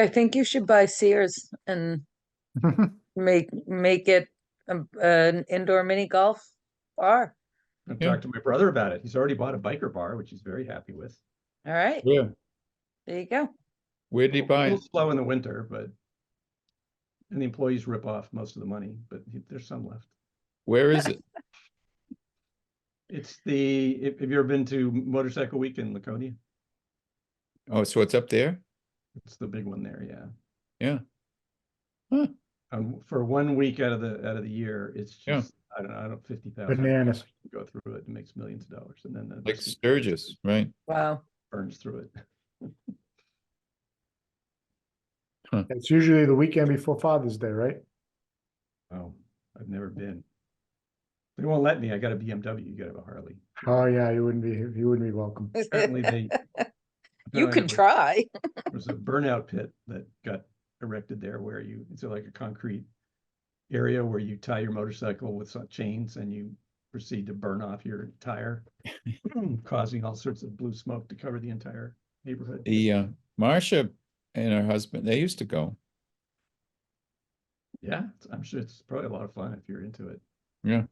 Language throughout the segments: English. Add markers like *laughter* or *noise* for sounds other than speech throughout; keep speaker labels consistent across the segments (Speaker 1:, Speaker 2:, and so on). Speaker 1: I think you should buy Sears and make, make it um, an indoor mini golf bar.
Speaker 2: I've
Speaker 3: Yeah.
Speaker 2: talked to my brother about it. He's already bought a biker bar, which he's very happy with.
Speaker 1: All right,
Speaker 3: Yeah,
Speaker 1: there you go.
Speaker 3: where'd he
Speaker 2: A
Speaker 3: buy it?
Speaker 2: little slow in the winter, but and the employees rip off most of the money, but he- there's some left.
Speaker 3: Where is it?
Speaker 2: It's the, if, have you ever been to Motorcycle Week in Laconia?
Speaker 3: Oh, so it's up there?
Speaker 2: It's the big one there, yeah.
Speaker 3: Yeah. Huh.
Speaker 2: Um, for one week out of the, out of the year, it's
Speaker 3: Yeah.
Speaker 2: just, I don't know, I don't, fifty thousand,
Speaker 4: Bananas.
Speaker 2: go through it, it makes millions of dollars, and then the
Speaker 3: Like
Speaker 2: rest
Speaker 3: Sturgis, right?
Speaker 1: Wow.
Speaker 2: burns through it.
Speaker 4: It's usually the weekend before Father's Day, right?
Speaker 2: Oh, I've never been. They won't let me, I got a BMW, you gotta have a Harley.
Speaker 4: Oh, yeah, you wouldn't be, you wouldn't be welcome.
Speaker 1: *laughs*
Speaker 2: Apparently
Speaker 1: You
Speaker 2: they. apparently
Speaker 1: can
Speaker 2: there
Speaker 1: try.
Speaker 2: was a burnout pit that got erected there where you, it's like a concrete area where you tie your motorcycle with some chains and you proceed to burn off your tire, *clears throat* causing all sorts of blue smoke to cover the entire neighborhood.
Speaker 3: The, uh, Marcia and her husband, they used to go.
Speaker 2: Yeah, it's- I'm sure it's probably a lot of fun if you're into it.
Speaker 3: Yeah.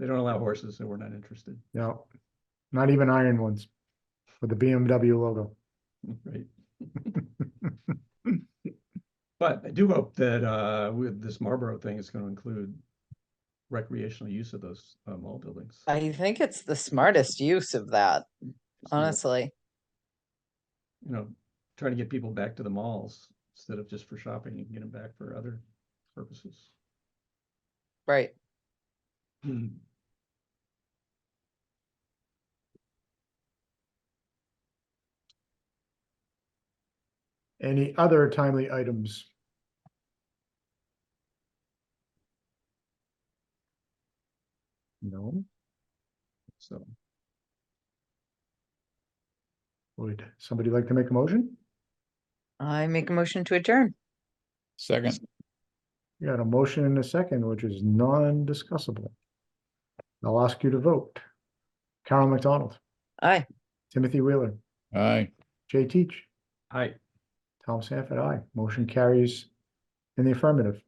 Speaker 2: They don't allow horses, so we're not interested, *laughs*
Speaker 4: No, not even iron ones with the BMW logo.
Speaker 2: right? But I do hope that uh with this Marlboro thing, it's gonna include recreational use of those uh, mall buildings.
Speaker 1: I think it's the smartest use of that,
Speaker 2: Just more,
Speaker 1: honestly.
Speaker 2: You know, trying to get people back to the malls instead of just for shopping and get them back for other purposes.
Speaker 1: Right.
Speaker 2: Hmm.
Speaker 4: Any other timely items? No,
Speaker 2: So
Speaker 4: would somebody like to make a motion?
Speaker 1: I make a motion to adjourn.
Speaker 3: Second,
Speaker 4: You got a motion and a second, which is non-discussable. I'll ask you to vote. Carol McDonald,
Speaker 1: Aye.
Speaker 4: Timothy Wheeler,
Speaker 3: aye.
Speaker 4: Jay Teach,
Speaker 2: I
Speaker 4: Tom Sanford, aye. Motion carries in the affirmative.